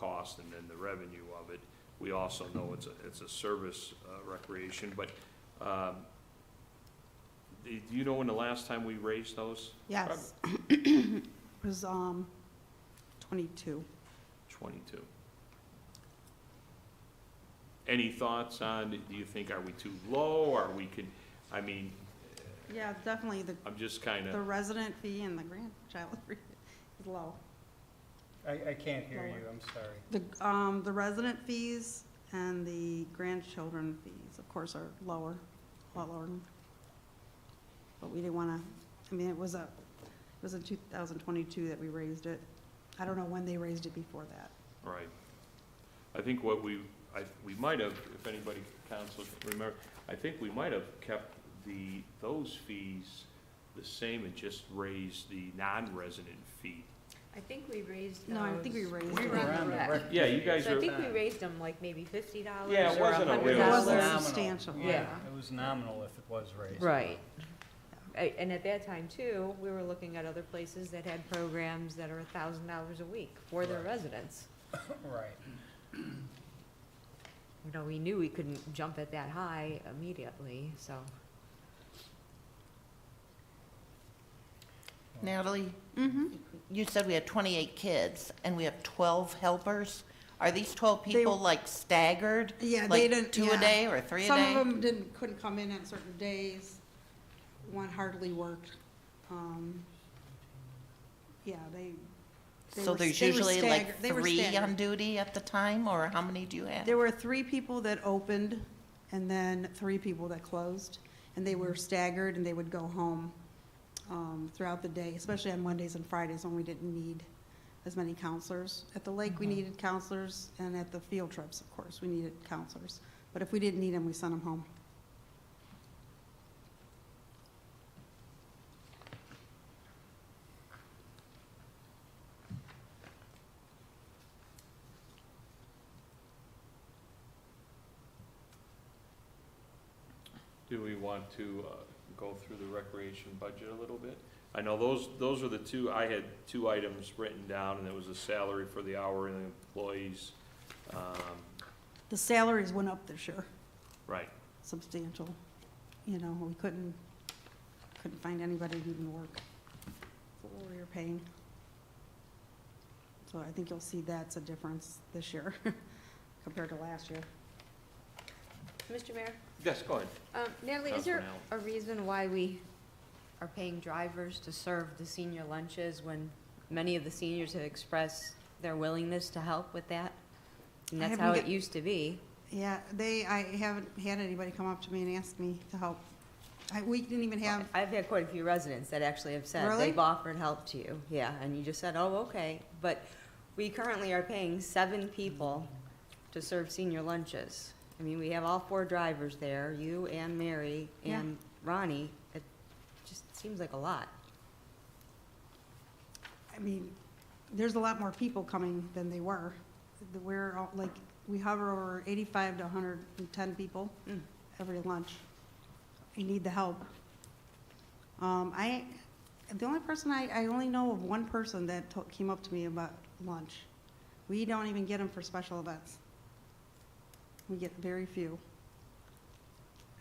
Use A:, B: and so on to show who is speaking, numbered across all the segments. A: cost and then the revenue of it. We also know it's a, it's a service uh, recreation, but, um, do do you know when the last time we raised those?
B: Yes. It was, um, 22.
A: Twenty-two. Any thoughts on, do you think, are we too low, are we could, I mean,
B: Yeah, definitely the,
A: I'm just kinda.
B: the resident fee and the grandchild fee is low.
C: I, I can't hear
B: Lower.
C: you, I'm sorry.
B: The, um, the resident fees and the grandchildren fees, of course, are lower, a lot lower. But we didn't wanna, I mean, it was a, it was in two thousand twenty-two that we raised it. I don't know when they raised it before that.
A: Right. I think what we, I, we might have, if anybody, council, remember, I think we might have kept the, those fees the same and just raised the non-resident fee.
D: I think we raised those.
B: No, I think we raised
D: We
B: it.
D: were on
C: Around
D: the
C: the
D: rec.
C: rec-
A: Yeah, you guys
D: So I
A: are,
D: think we raised them like maybe fifty dollars
A: Yeah, it
D: or
A: wasn't a
D: hundred
A: real- It
B: wasn't
D: dollars.
C: Nominal.
B: substantial.
D: Yeah.
C: It was nominal if it was raised.
D: Right. A- And at that time too, we were looking at other places that had programs that are a thousand dollars a week for their
C: Right.
D: residents.
C: Right.
D: You know, we knew we couldn't jump it that high immediately, so.
E: Natalie,
B: Mm-hmm.
E: you said we had 28 kids and we have 12 helpers. Are these 12
B: They-
E: people like staggered?
B: Yeah, they
E: Like
B: didn't-
E: two
B: yeah.
E: a day or three a
B: Some of
E: day?
B: them didn't, couldn't come in on certain days. One hardly worked. Um, Yeah, they, they
E: So
B: were-
E: there's
B: they were
E: usually
B: staggered-
E: like
B: they were
E: three on
B: staggered.
E: duty at the time, or how many do you have?
B: there were three people that opened and then three people that closed. And they were staggered and they would go home um, throughout the day, especially on Mondays and Fridays when we didn't need as many counselors. At the lake,
E: Mm-hmm.
B: we needed counselors and at the field trips, of course, we needed counselors. But if we didn't need them, we sent them home.
A: do we want to uh, go through the recreation budget a little bit? I know those, those are the two, I had two items written down, and it was a salary for the hourly employees. Um,
B: The salaries went up this year.
A: Right,
B: substantial. You know, we couldn't, couldn't find anybody to even work for what we were paying. So I think you'll see that's a difference this year compared to last year.
D: Mr. Mayor,
A: yes, go ahead.
D: um, Natalie, is
A: Councilman
D: there
A: Allen.
D: a reason why we are paying drivers to serve the senior lunches when many of the seniors have expressed their willingness to help with that? And
B: I
D: that's
B: haven't
D: how it
B: get-
D: used to be.
B: Yeah, they, I haven't had anybody come up to me and ask me to help. I, we didn't even have,
D: I've had quite a few residents that actually have said
B: Really?
D: they've offered help to you, yeah, and you just said, oh, okay. But we currently are paying seven people to serve senior lunches. I mean, we have all four drivers there, you and Mary
B: Yeah.
D: and Ronnie. It just seems like a lot.
B: I mean, there's a lot more people coming than they were. The- We're, all- like, we hover over eighty-five to hundred and ten people.
D: Mm.
B: every lunch. I need the help. Um, I, the only person I, I only know of one person that to- came up to me about lunch. We don't even get them for special events. We get very few.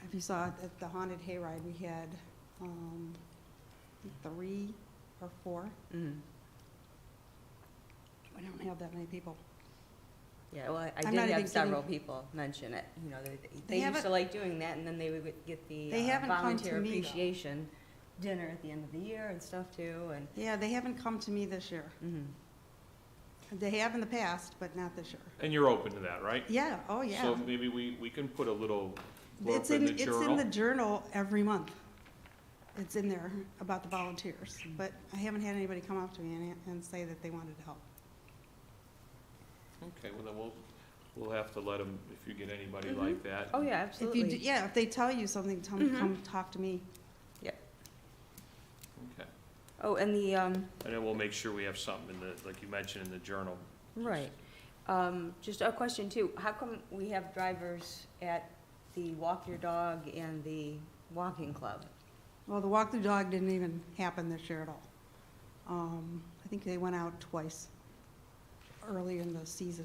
B: If you saw it at the haunted hayride, we had, um, three or four.
D: Mm.
B: We don't have that many people.
D: Yeah, well, I- I
B: I'm
D: did
B: not even
D: have several
B: kidding.
D: people mention it, you know, they,
B: They
D: they used to
B: haven't-
D: like doing that, and then they would get- get the
B: They
D: uh,
B: haven't come to
D: volunteer
B: me, though.
D: appreciation dinner at the end of the year and stuff too, and,
B: Yeah, they haven't come to me this year.
D: mhm.
B: They have in the past, but not this year.
A: And you're open to that, right?
B: Yeah, oh, yeah.
A: So maybe we, we can put a little blurb
B: It's
A: in
B: in,
A: the
B: it's in
A: journal.
B: the journal every month. It's in there about the volunteers, but I haven't had anybody come up to me and, and say that they wanted to help.
A: Okay, well, then we'll, we'll have to let them, if you get anybody
B: Mm-hmm.
D: Mhm.
A: like that.
D: oh yeah,
B: If you,
D: absolutely.
B: do- Mm-hmm. yeah, if they tell you something, tell them,
D: Mhm.
B: come talk to me.
A: Okay,
D: Oh, and the, um,
A: and then we'll make sure we have something in the, like you mentioned, in the journal.
D: right, um, just a question too, how come we have drivers at the walk your dog and the walking club?
B: Well, the walk the dog didn't even happen this year at all. Um, I think they went out twice early in the season.